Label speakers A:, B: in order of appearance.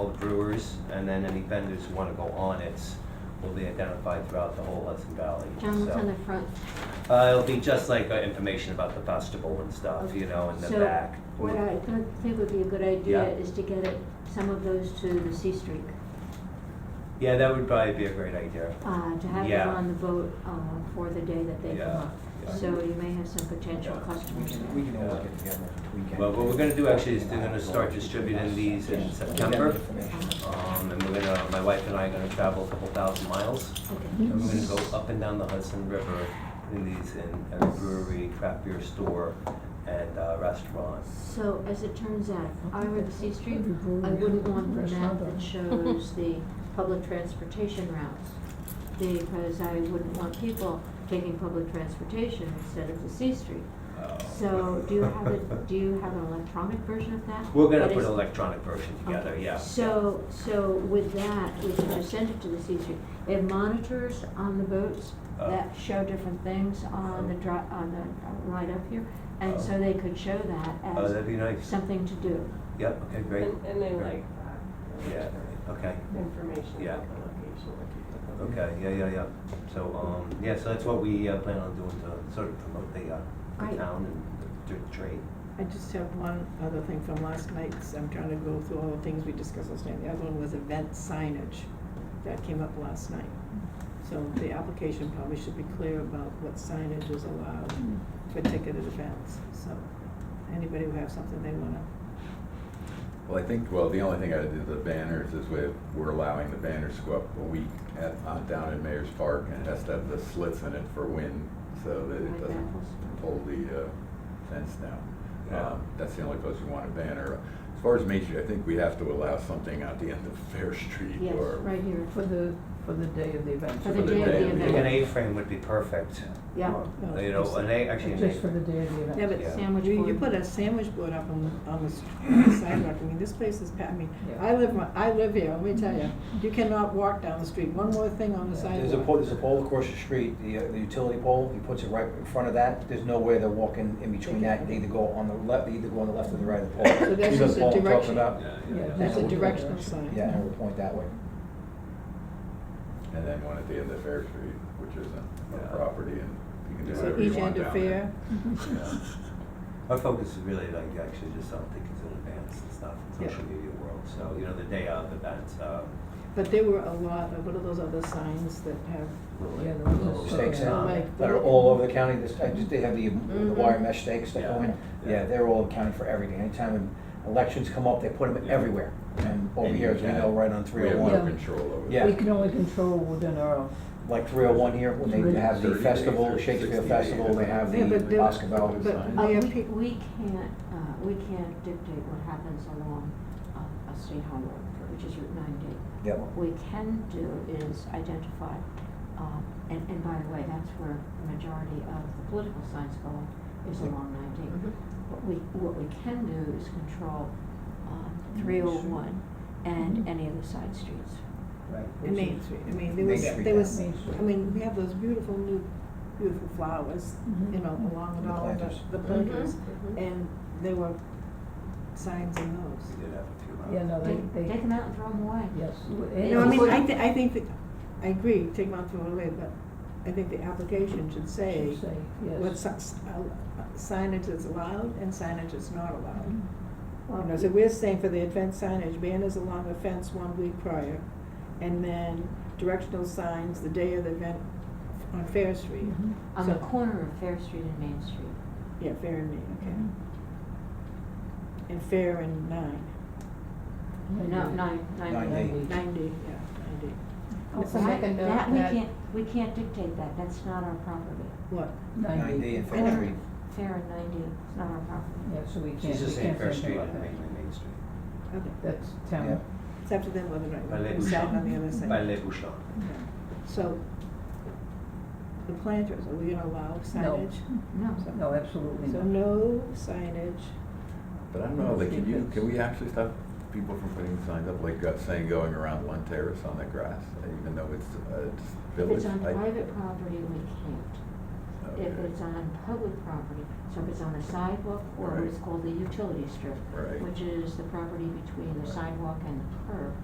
A: brewers, and then any vendors who wanna go on it will be identified throughout the whole Hudson Valley.
B: John, what's
A: So-
B: on the front?
A: Uh, it'll be just like uh, information about the festival and stuff, you know, in the back.
B: So what I thought- think would be a good idea
A: Yeah.
B: is to get it, some of those to the C Streak,
A: Yeah, that would probably be a great idea.
B: uh, to have them
A: Yeah.
B: on the boat uh, for the day that they
A: Yeah,
B: come up.
A: yeah.
B: So you may have some potential
A: Yeah.
C: We
B: customers
C: can,
B: there.
C: we can always get together and tweak it.
A: Well, what we're gonna do actually is they're gonna start distributing these in
C: Yeah.
A: September.
C: Get that information.
A: Um, and we're gonna, my wife and I are gonna travel a couple thousand miles.
B: Okay.
A: And we're gonna go up and down the Hudson River in these, in a brewery, craft beer store, and uh, restaurant.
B: So as it turns out, if I were the C Street, I wouldn't want the map that shows the public transportation routes. Because I wouldn't want people taking public transportation instead of the C Street.
A: uh,
B: So do you have a, do you have an electronic version of that?
A: We're gonna
B: That
A: put
B: is-
A: an electronic version together,
B: Okay.
A: yeah.
B: So, so with that, we can just send it to the C Street. They have monitors on the boats
A: Oh.
B: that show different things on the dri- on the uh, ride up here. And so they could show that
A: Oh, that'd
B: as
A: be nice.
B: something to do.
A: Yep, okay, great.
D: And, and they
A: Great.
D: like
A: Yeah, okay.
D: information
A: Yeah.
D: about the location.
A: Okay, yeah, yeah, yeah. So, um, yeah, so that's what we uh, plan on doing to sort of promote the, uh, the
B: Right.
A: town and the tr- trade.
E: I just have one other thing from last night, 'cause I'm trying to go through all the things we discussed last night. The other one was event signage that came up last night. So the application probably should be clear about what signage is allowed for ticketed events. So anybody who has something they wanna,
F: Well, I think, well, the only thing I did, the banners is we're, we're allowing the banners to go up a week at, uh, down in Mayor's Park and it has to have the slits in it for wind so
B: Like
F: that it doesn't
B: baffles.
F: pull the, uh, fence down.
A: Yeah.
F: Um, That's the only place we want a banner. As far as Main Street, I think we have to allow something at the end of Fair Street
B: Yes,
F: or.
B: right here.
G: For the, for the day of the event.
B: For the day of the
F: Yeah.
A: Like an
B: event.
A: A-frame would be perfect.
B: Yeah.
A: Or, You know, an A, actually an
G: Just for
A: A.
G: the day of the event.
E: yeah, but
A: Yeah.
B: Sandwich
E: you, you
B: board.
E: put a sandwich board up on, on the s- on the sidewalk. I mean, this place is, pa- I mean,
G: Yeah.
E: I live, my- I live here, let me tell you. You cannot walk down the street. One more thing on the sidewalk.
C: There's a pole, there's a pole across the street, the, uh, the utility pole, he puts it right in front of that, there's no way they're walking in between that, they either go on the left, they either go on the left or the right of the pole.
E: So that's
C: You know the
E: just a
C: pole I'm talking
E: direction.
C: about?
G: Yeah,
E: There's a
G: Yeah.
E: directional sign.
C: Yeah, and we'll point that way.
F: And then one at the end of Fair Street, which isn't
A: Yeah.
F: a property and you can do
E: So
F: whatever you
E: each
F: want
E: end
F: down
E: of
F: there.
E: fair,
F: Yeah.
A: Our focus is really like actually just on tickets in advance and stuff, in social media world. So, you know, the day of events, um,
E: but there were a lot of, what are those other signs that have,
A: little.
G: Yeah, those are
F: Oh,
A: little
C: Stakes
A: um,
E: Like-
C: that are all over the county, this, I just, they have the, the
E: Mhm.
C: wire mesh stakes that go in,
A: Yeah.
C: yeah, they're all accounting for everything, anytime elections come up, they put them
F: Yeah.
C: everywhere. And over
F: And
C: here,
F: you
C: as we
F: can't-
C: know, right on three oh
F: We have
C: one,
F: no control over that.
C: Yeah.
G: We can only control within our own.
C: like three oh one here, when they have the
F: 30 days
C: festival,
F: or
C: Shakespeare
F: 60 days.
C: Festival, they have
E: Yeah, but
C: the
E: there-
C: Oscar Bell.
E: but
B: Uh,
E: Yeah,
B: we,
E: pe-
B: we can't, uh, we can't dictate what happens along, uh, a state highway, which is Route ninety.
C: Yep.
B: What we can do is identify, um, and, and by the way, that's where the majority of the political science go, is along ninety.
E: Mhm.
B: What we, what we can do is control, um, three oh one Mm-hmm. and any of the side streets.
E: the Main Street, I mean, there
C: Main
E: was,
C: Street
E: there
C: now.
E: was,
G: Main Street.
E: I mean, we have those beautiful new, beautiful flowers, you know, along
C: The
E: with all of the,
C: planters.
E: the planters,
D: Mhm, mhm.
E: and there were signs in
A: We
E: those.
A: did have a few. uh,
G: Yeah, no,
B: Take,
G: they,
B: take
G: they,
B: them out and throw them away.
G: yes.
B: Yeah.
E: No, I mean, I
B: Yeah.
E: thi- I think that, I agree, take Mount Thorn away, but I think the application should say
G: Should say, yes.
E: what si- s- uh, signage is allowed and signage is not allowed. You know, so we're saying for the event signage, banners along the fence one week prior, and then directional signs the day of the event on Fair Street.
G: Mhm.
B: On the
E: So-
B: corner of Fair Street and Main Street.
E: Yeah, Fair and Main,
G: Mm-hmm.
E: okay. And Fair and Nine,
B: No, nine, nine.
C: Nine D.
E: ninety, yeah, ninety.
H: Also
B: That-
H: make a note
B: That, we
H: that,
B: can't, we can't dictate that, that's not our property.
E: What?
C: Nine D
G: Ninety.
C: and Fair Street.
B: Fair and ninety, it's not our property.
G: Yeah, so we can't, we can't
A: She's just
G: say
A: saying Fair
G: anything
A: Street
G: about
A: and
G: that.
A: mainly Main Street.
E: Okay,
G: That's
C: Yeah.
G: town.
E: it's up to them whether or
A: By
E: not
A: Les
E: you sign on the other
A: Bouchons,
E: side.
A: by Les Bouchons.
E: So, the planters, are we gonna allow signage?
B: No.
E: So-
G: No, absolutely
E: So
G: not.
E: no signage,
F: But I don't know, like, can you,
G: Because-
F: can we actually stop people from putting signs up, like, uh, saying going around one terrace on the grass, even though it's a
B: If
F: village?
B: it's on
F: I-
B: private property, we can't. If
F: okay,
B: it's on public property, so if it's on a sidewalk or what is
F: Right.
B: called the utility strip,
F: Right.
B: which is the property between the sidewalk and the curb,